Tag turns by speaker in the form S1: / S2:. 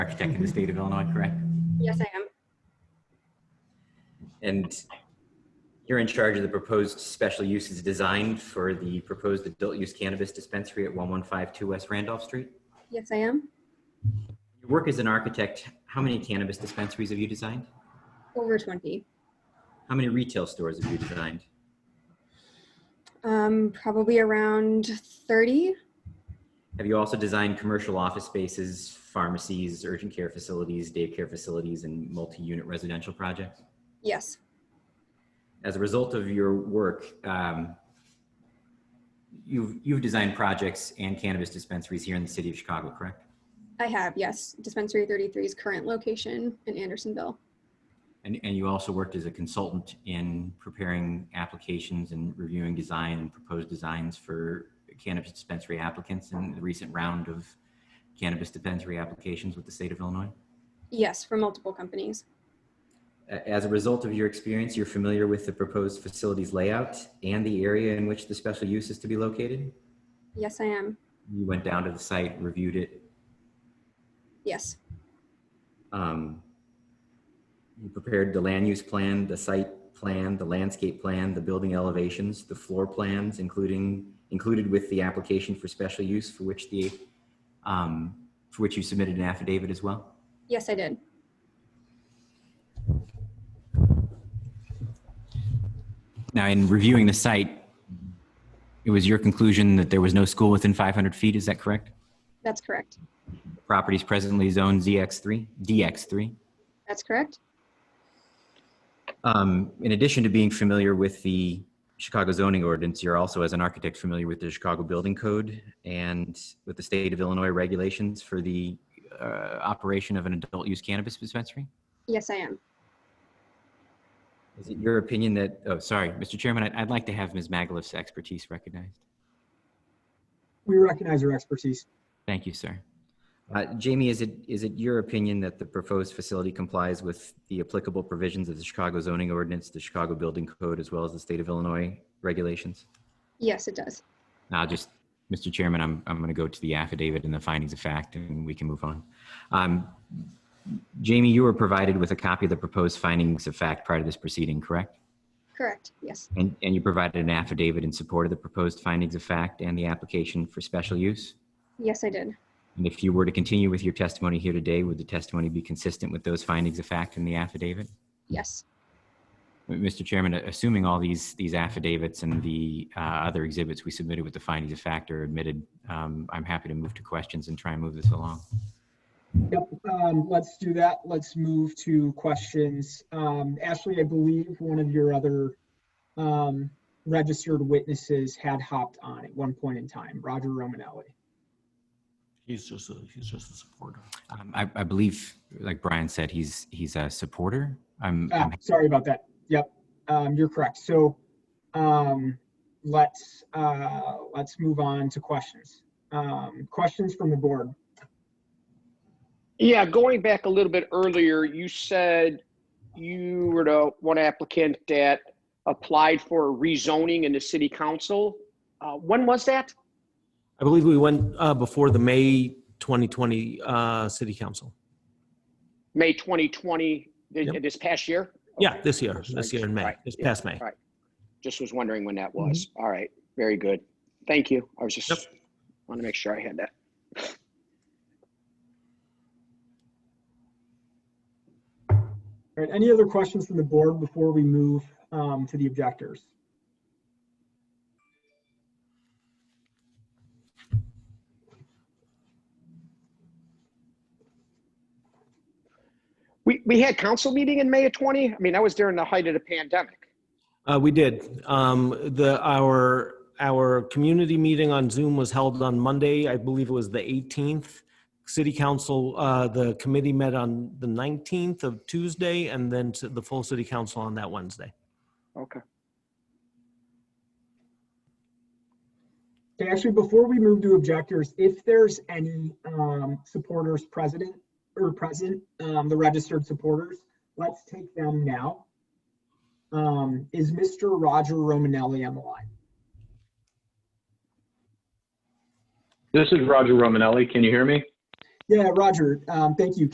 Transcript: S1: tech in the state of Illinois, correct?
S2: Yes, I am.
S1: And you're in charge of the proposed special uses design for the proposed adult use cannabis dispensary at 1152 West Randolph Street.
S2: Yes, I am.
S1: Your work as an architect, how many cannabis dispensaries have you designed?
S2: Over 20.
S1: How many retail stores have you designed?
S2: Um, probably around 30.
S1: Have you also designed commercial office spaces, pharmacies, urgent care facilities, daycare facilities, and multi-unit residential projects?
S2: Yes.
S1: As a result of your work, um, you've, you've designed projects and cannabis dispensaries here in the city of Chicago, correct?
S2: I have, yes. Dispensary 33's current location in Andersonville.
S1: And, and you also worked as a consultant in preparing applications and reviewing design and proposed designs for cannabis dispensary applicants in the recent round of cannabis dispensary applications with the state of Illinois?
S2: Yes, for multiple companies.
S1: A- As a result of your experience, you're familiar with the proposed facilities layout and the area in which the special use is to be located?
S2: Yes, I am.
S1: You went down to the site, reviewed it.
S2: Yes.
S1: um, You prepared the land use plan, the site plan, the landscape plan, the building elevations, the floor plans, including, included with the application for special use for which the, um, for which you submitted an affidavit as well?
S2: Yes, I did.
S1: Now, in reviewing the site, it was your conclusion that there was no school within 500 feet, is that correct?
S2: That's correct.
S1: Properties presently zoned ZX3, DX3.
S2: That's correct.
S1: Um, in addition to being familiar with the Chicago zoning ordinance, you're also, as an architect, familiar with the Chicago Building Code and with the state of Illinois regulations for the uh, operation of an adult use cannabis dispensary.
S2: Yes, I am.
S1: Is it your opinion that, oh, sorry, Mr. Chairman, I'd, I'd like to have Ms. Magaliff's expertise recognized.
S3: We recognize your expertise.
S1: Thank you, sir. Uh, Jamie, is it, is it your opinion that the proposed facility complies with the applicable provisions of the Chicago zoning ordinance, the Chicago Building Code, as well as the state of Illinois regulations?
S2: Yes, it does.
S1: I'll just, Mr. Chairman, I'm, I'm going to go to the affidavit and the findings of fact, and we can move on. Um, Jamie, you were provided with a copy of the proposed findings of fact prior to this proceeding, correct?
S2: Correct. Yes.
S1: And, and you provided an affidavit in support of the proposed findings of fact and the application for special use?
S2: Yes, I did.
S1: And if you were to continue with your testimony here today, would the testimony be consistent with those findings of fact in the affidavit?
S2: Yes.
S1: Mr. Chairman, assuming all these, these affidavits and the uh, other exhibits we submitted with the findings of fact are admitted, um, I'm happy to move to questions and try and move this along.
S3: Yep, um, let's do that. Let's move to questions. Um, Ashley, I believe one of your other um, registered witnesses had hopped on at one point in time, Roger Romanelli.
S4: He's just a, he's just a supporter.
S1: Um, I, I believe, like Brian said, he's, he's a supporter. I'm,
S3: Ah,
S1: I'm-
S3: sorry about that. Yep, um, you're correct. So, um, let's, uh, let's move on to questions. Um, questions from the board.
S5: Yeah, going back a little bit earlier, you said you were the one applicant that applied for rezoning in the city council. Uh, when was that?
S4: I believe we went uh, before the May 2020 uh, city council.
S5: May 2020, th-
S4: Yep.
S5: this past year?
S4: Yeah,
S5: Okay.
S4: this year, this year in May,
S5: Right,
S4: this
S5: yeah,
S4: past May.
S5: right. Just was wondering when that was. All right, very good. Thank you. I was just,
S4: Yep.
S5: want to make sure I had that.
S3: All right, any other questions from the board before we move um, to the objectors?
S5: We, we had council meeting in May of 20? I mean, I was during the height of the pandemic.
S4: Uh, We did. Um, The, our, our community meeting on Zoom was held on Monday, I believe it was the 18th. City council, uh, the committee met on the 19th of Tuesday, and then to the full city council on that Wednesday.
S5: Okay.
S3: Okay, actually, before we move to objectors, if there's any um, supporters president or present, um, the registered supporters, let's take them now. Um, Is Mr. Roger Romanelli on the line?
S6: This is Roger Romanelli. Can you hear me?
S3: Yeah, Roger, um, thank you.